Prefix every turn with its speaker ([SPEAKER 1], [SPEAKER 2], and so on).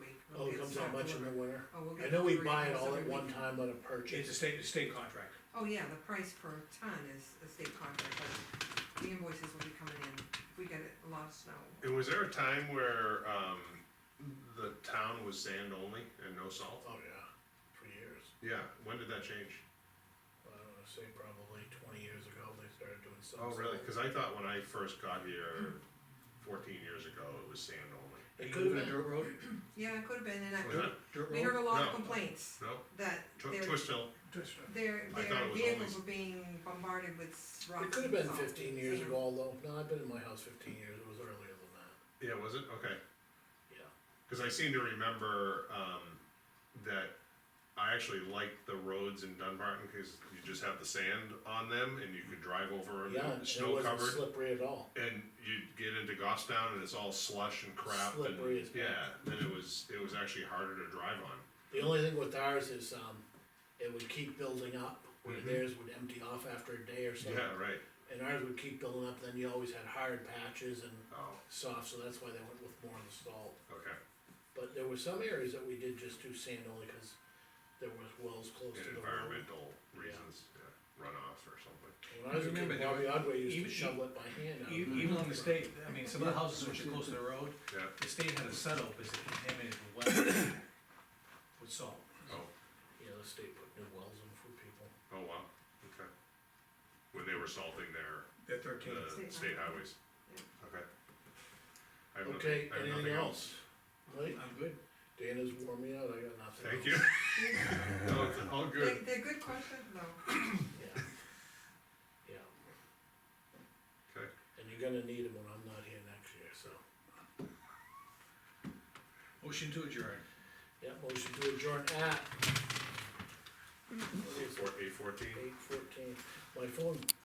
[SPEAKER 1] Oh, comes out much in the winter.
[SPEAKER 2] Oh, we'll
[SPEAKER 1] I
[SPEAKER 2] get
[SPEAKER 1] know we
[SPEAKER 2] three
[SPEAKER 1] buy it
[SPEAKER 2] bids
[SPEAKER 1] all
[SPEAKER 2] every
[SPEAKER 1] at one
[SPEAKER 2] week.
[SPEAKER 1] time on a
[SPEAKER 3] It's a
[SPEAKER 1] purchase.
[SPEAKER 3] state, state contract.
[SPEAKER 2] Oh, yeah, the price per ton is a state contract, but the invoices will be coming in, if we get a lot of snow.
[SPEAKER 4] And was there a time where, um, the town was sand only and no salt?
[SPEAKER 1] Oh, yeah, for years.
[SPEAKER 4] Yeah, when did that change?
[SPEAKER 1] I don't wanna say probably twenty years ago, they started doing some.
[SPEAKER 4] Oh, really?
[SPEAKER 1] salt.
[SPEAKER 4] Cause I thought when I first got here fourteen years ago, it was sand only.
[SPEAKER 3] Are
[SPEAKER 1] It
[SPEAKER 3] you
[SPEAKER 1] could
[SPEAKER 3] moving a
[SPEAKER 1] have been,
[SPEAKER 3] dirt road?
[SPEAKER 2] Yeah, it could have been, and
[SPEAKER 4] Was
[SPEAKER 2] I,
[SPEAKER 4] that,
[SPEAKER 3] Dirt
[SPEAKER 2] we heard
[SPEAKER 3] road?
[SPEAKER 2] a lot of
[SPEAKER 4] No.
[SPEAKER 2] complaints
[SPEAKER 4] no,
[SPEAKER 2] that
[SPEAKER 4] Tw-
[SPEAKER 2] their,
[SPEAKER 4] Twist Hill,
[SPEAKER 3] Just-
[SPEAKER 2] their,
[SPEAKER 4] I thought
[SPEAKER 2] their
[SPEAKER 4] it was
[SPEAKER 2] vehicles
[SPEAKER 4] always-
[SPEAKER 2] were being bombarded with s- rocks.
[SPEAKER 1] it could have
[SPEAKER 2] and
[SPEAKER 1] been
[SPEAKER 2] salt
[SPEAKER 1] fifteen
[SPEAKER 2] and
[SPEAKER 1] years
[SPEAKER 2] sand.
[SPEAKER 1] ago, although, no, I've been in my house fifteen years, it was earlier than that,
[SPEAKER 4] yeah, was it? Okay.
[SPEAKER 1] yeah.
[SPEAKER 4] Cause I seem to remember, um, that I actually liked the roads in Dunbarton, cause you just have the sand on them and you could drive over them,
[SPEAKER 1] Yeah,
[SPEAKER 4] and
[SPEAKER 1] and it
[SPEAKER 4] snow
[SPEAKER 1] wasn't
[SPEAKER 4] covered.
[SPEAKER 1] slippery at all.
[SPEAKER 4] And you get into Goffstown and it's all slush and crap and,
[SPEAKER 1] Slippery as
[SPEAKER 4] yeah,
[SPEAKER 1] heck.
[SPEAKER 4] then it was, it was actually harder to drive on.
[SPEAKER 1] The only thing with ours is, um, it would keep building up, where
[SPEAKER 4] Mhm.
[SPEAKER 1] theirs would empty off after a day or so.
[SPEAKER 4] Yeah, right,
[SPEAKER 1] And ours would keep building up, then you always had hard patches and
[SPEAKER 4] oh,
[SPEAKER 1] soft, so that's why they went with more of the salt.
[SPEAKER 4] okay,
[SPEAKER 1] But there were some areas that we did just do sand only, cause there was wells close to
[SPEAKER 4] and
[SPEAKER 1] the road.
[SPEAKER 4] environmental reasons, yeah, runoff or something.
[SPEAKER 1] When I was a
[SPEAKER 3] Remember
[SPEAKER 1] kid,
[SPEAKER 3] there
[SPEAKER 1] Bobby
[SPEAKER 3] were-
[SPEAKER 1] Odway used to
[SPEAKER 3] even-
[SPEAKER 1] shovel it by hand. out.
[SPEAKER 3] E- Even on the state, I mean, some of the houses which are close to the road,
[SPEAKER 4] Yeah,
[SPEAKER 3] the state had a setup, is it contaminated with wet, with salt.
[SPEAKER 4] oh,
[SPEAKER 1] Yeah, the state put new wells in for people.
[SPEAKER 4] oh wow, okay. When they were salting their,
[SPEAKER 3] They're thirteen.
[SPEAKER 4] the
[SPEAKER 2] State
[SPEAKER 4] state
[SPEAKER 2] highway.
[SPEAKER 4] highways, okay. I have nothing-
[SPEAKER 1] Okay,
[SPEAKER 4] I have
[SPEAKER 1] anything
[SPEAKER 4] nothing
[SPEAKER 1] else? Mike,
[SPEAKER 3] I'm good.
[SPEAKER 1] Dana's worn me out, I got nothing
[SPEAKER 4] Thank you.
[SPEAKER 1] else.
[SPEAKER 4] No, it's all
[SPEAKER 2] They're,
[SPEAKER 4] good.
[SPEAKER 2] they're good questions, though.
[SPEAKER 1] Yeah. Yeah,
[SPEAKER 4] Okay,
[SPEAKER 1] and you're gonna need them when I'm not here next year, so.
[SPEAKER 3] Motion to adjourn.
[SPEAKER 1] Yeah, motion to adjourn at
[SPEAKER 4] eight fourteen.
[SPEAKER 1] eight fourteen. My phone